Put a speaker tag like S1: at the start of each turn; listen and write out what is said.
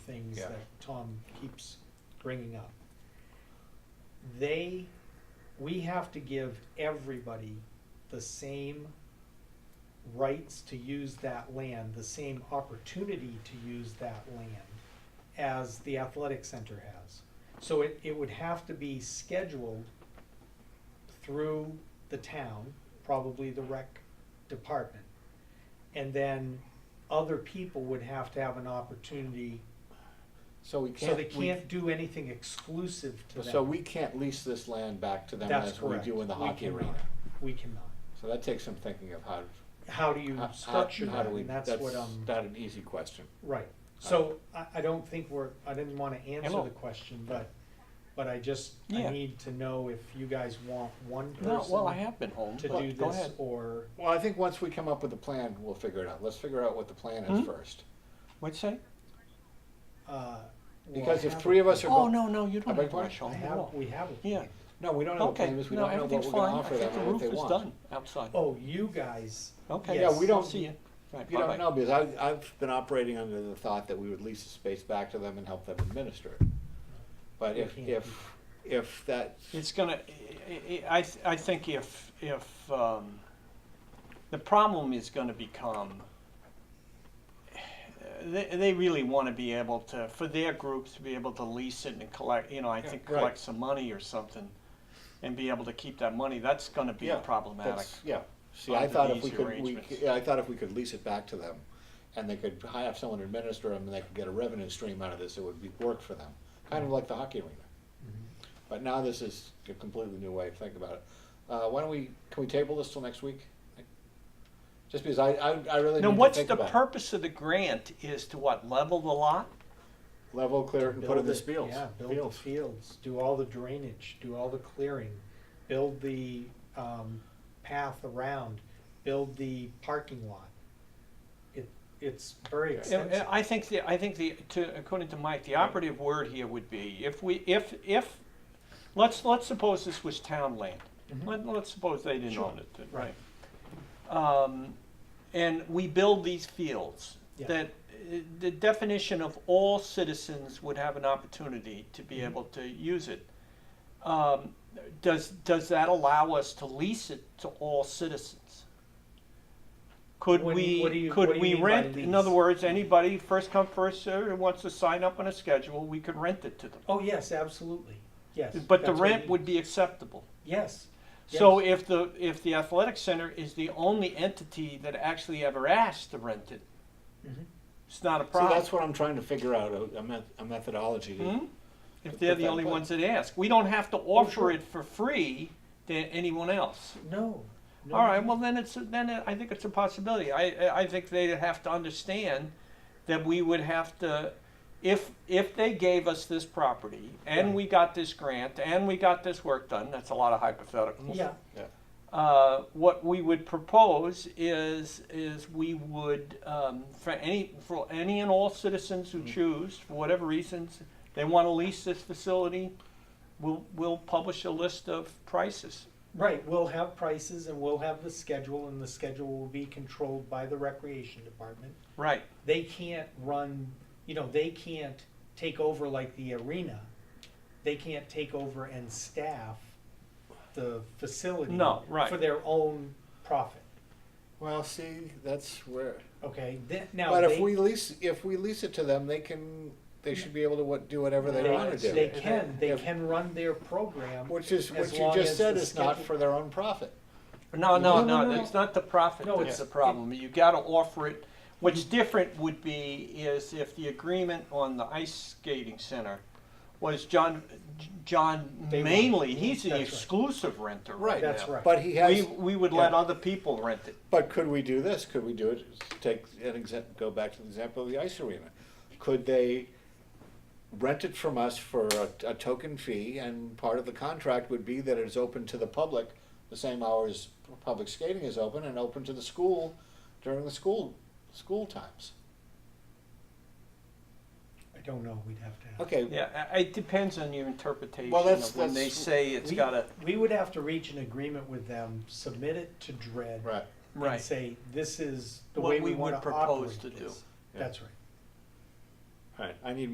S1: things
S2: Yeah.
S1: that Tom keeps bringing up. They, we have to give everybody the same rights to use that land, the same opportunity to use that land as the athletic center has. So it, it would have to be scheduled through the town, probably the rec department. And then other people would have to have an opportunity,
S2: So we can't.
S1: so they
S2: we-
S1: can't do anything exclusive to them.
S2: So we can't lease this land back to them
S1: That's
S2: as we
S1: correct.
S2: do in the
S1: We
S2: hockey
S1: cannot.
S2: arena.
S1: We cannot.
S2: So that takes some thinking of how.
S1: How do you
S2: how- how-
S1: structure
S2: how
S1: that?
S2: do we- Uh,
S1: And that's what um, I'm,
S2: Not an easy question.
S1: right. So I, I don't think we're, I didn't wanna answer
S3: Hello.
S1: the question, but, but I just, I
S3: Yeah.
S1: need to know if you guys want one
S3: No, well, I
S1: person
S3: have been home,
S1: to
S3: but
S1: do
S3: go
S1: this
S3: ahead.
S1: or,
S2: Well, I think once we come up with a plan, we'll figure it out. Let's figure out what the plan is
S3: Hmm?
S2: first.
S3: What'd you say?
S1: uh. well,
S2: Because
S1: I
S2: if
S1: have-
S2: three of us are.
S3: Oh,
S2: go-
S3: no, no, you
S2: I beg
S3: don't Oh, have to
S2: your
S3: rush
S1: I
S3: home at
S1: have,
S3: all.
S1: we have a
S3: Yeah,
S1: plan.
S2: No, we don't have a
S3: okay,
S2: plan because we
S3: no,
S2: don't know what
S3: everything's
S2: we're gonna
S3: fine, I
S2: offer
S3: think
S2: them
S3: the
S2: or what
S3: roof
S2: they
S3: is
S2: want.
S3: done outside.
S1: Oh, you guys,
S3: Okay,
S1: Yeah,
S3: yeah,
S1: we
S3: we
S2: don't-
S3: don't see you. Right,
S2: You don't
S3: bye-bye.
S2: know, because I, I've been operating under the thought that we would lease the space back to them and help them administer it. But
S1: We
S2: if,
S1: can't do
S2: if, if that,
S3: It's gonna, I- I, I th- I think if, if, um, the problem is gonna become, they, they really wanna be able to, for their groups, to be able to lease it and collect, you know, I
S2: Yeah,
S3: think
S2: right.
S3: collect some money or something and be able to keep that money, that's gonna be
S2: Yeah,
S3: problematic.
S2: that's, yeah. See,
S3: Under
S2: I thought if
S3: these
S2: we could, we,
S3: arrangements.
S2: yeah, I thought if we could lease it back to them and they could have someone administer them and they could get a revenue stream out of this, it would be, work for them. Kind of like the hockey arena. But now this is a completely new way of thinking about it. Uh, why don't we, can we table this till next week? Just because I, I, I really need to think about it.
S3: Now, what's the purpose of the grant is to what, level the lot?
S2: Level, clear, and put
S1: build
S2: in the
S1: it-
S2: fields.
S1: Yeah, build the
S2: Fields.
S1: fields, do all the drainage, do all the clearing, build the, um, path around, build the parking lot. It, it's very
S3: Yeah,
S1: extensive.
S3: I think the, I think the, to, according to Mike, the operative word here would be, if we, if, if, let's, let's suppose this was town land.
S2: Mm-hmm.
S1: Mhm.
S3: Let, let's suppose they didn't
S1: Sure.
S3: own it, didn't-
S1: Right.
S3: Um, and we build these fields,
S1: Yeah.
S3: that, uh, the definition of all citizens would have an opportunity to
S1: Mm-hmm.
S3: be able to use it. Um, does, does that allow us to lease it to all citizens? Could
S1: What do you- what do
S3: we,
S1: you- what
S3: could
S1: do you
S3: we
S1: mean by
S3: rent, in
S1: lease?
S3: other words, anybody, first come, first served, who wants to sign up on a schedule, we could rent it to them.
S1: Oh, yes, absolutely, yes.
S3: But the
S1: that's what
S3: rent
S1: we-
S3: would be acceptable.
S1: Yes,
S3: So if the, if the athletic center is the only entity that actually ever asked to rent it,
S1: Mhm.
S3: it's not a
S2: See,
S3: problem.
S2: that's what I'm trying to figure out, a, a met- a methodology. to-
S3: Hmm? If they're the
S2: But-
S3: only
S2: but-
S3: ones that ask. We don't have to offer
S1: Oh, sure.
S3: it for free to anyone else.
S1: no. no,
S3: All right,
S1: no.
S3: well, then it's, then it- I think it's a possibility. I- I, I think they'd have to understand that we would have to, if, if they gave us this property and
S1: Right.
S3: we got this grant and we got this work done, that's a lot of hypotheticals.
S1: Yeah,
S3: Uh, what we would propose is, is we would, um, for any, for any and all citizens
S1: Mm.
S3: who choose, for whatever reasons, they want to lease this facility, we'll, we'll publish a list of prices.
S1: right, we'll have prices and we'll have the schedule, and the schedule will be controlled by the recreation department.
S3: Right.
S1: they can't run, you know, they can't take over like the arena. They can't take over and staff the facility.
S3: No, right.
S1: For their own profit,
S2: Well, see, that's where.
S1: okay? Then, now,
S2: But if
S1: they,
S2: we lease, if we lease it to them, they can, they should be able to what, do whatever they
S1: they-
S2: wanna
S1: they
S2: do.
S1: can, they
S2: If-
S1: can run their program.
S2: Which is,
S1: as
S2: what you
S1: long
S2: just
S1: as
S2: said
S1: the
S2: is not
S1: schedule-
S2: for their own profit.
S3: No, no,
S2: No, no,
S3: no,
S2: no.
S3: it's not the profit
S1: No,
S3: that's
S1: it's- Mm-hmm.
S3: the problem, you gotta offer it. What's different would be is if the agreement on the ice skating center was John, John
S1: They want-
S3: mainly, he's the
S1: That's right.
S3: exclusive renter
S2: Right.
S3: right
S1: That's
S3: now.
S1: right.
S2: But he
S3: We,
S2: has,
S3: we would let
S2: yeah.
S3: other people rent it.
S2: but could we do this? Could we do it, take an example, go back to the example of the ice arena? Could they rent it from us for a, a token fee and part of the contract would be that it's open to the public the same hours public skating is open and open to the school during the school, school times?
S1: I don't know, we'd have to have.
S2: Okay,
S3: Yeah, I- it depends on your interpretation
S2: Well, that's-
S3: of when they
S2: that's-
S3: say it's
S1: We-
S3: gotta,
S1: We would have to reach an agreement with them, submit it to DRED.
S2: right.
S3: right.
S1: And say, this is the
S3: What
S1: way
S3: we
S1: we
S3: would
S1: wanna
S3: propose
S1: operate
S3: to do.
S1: this.
S2: Yeah.
S1: That's right.
S2: All right, I need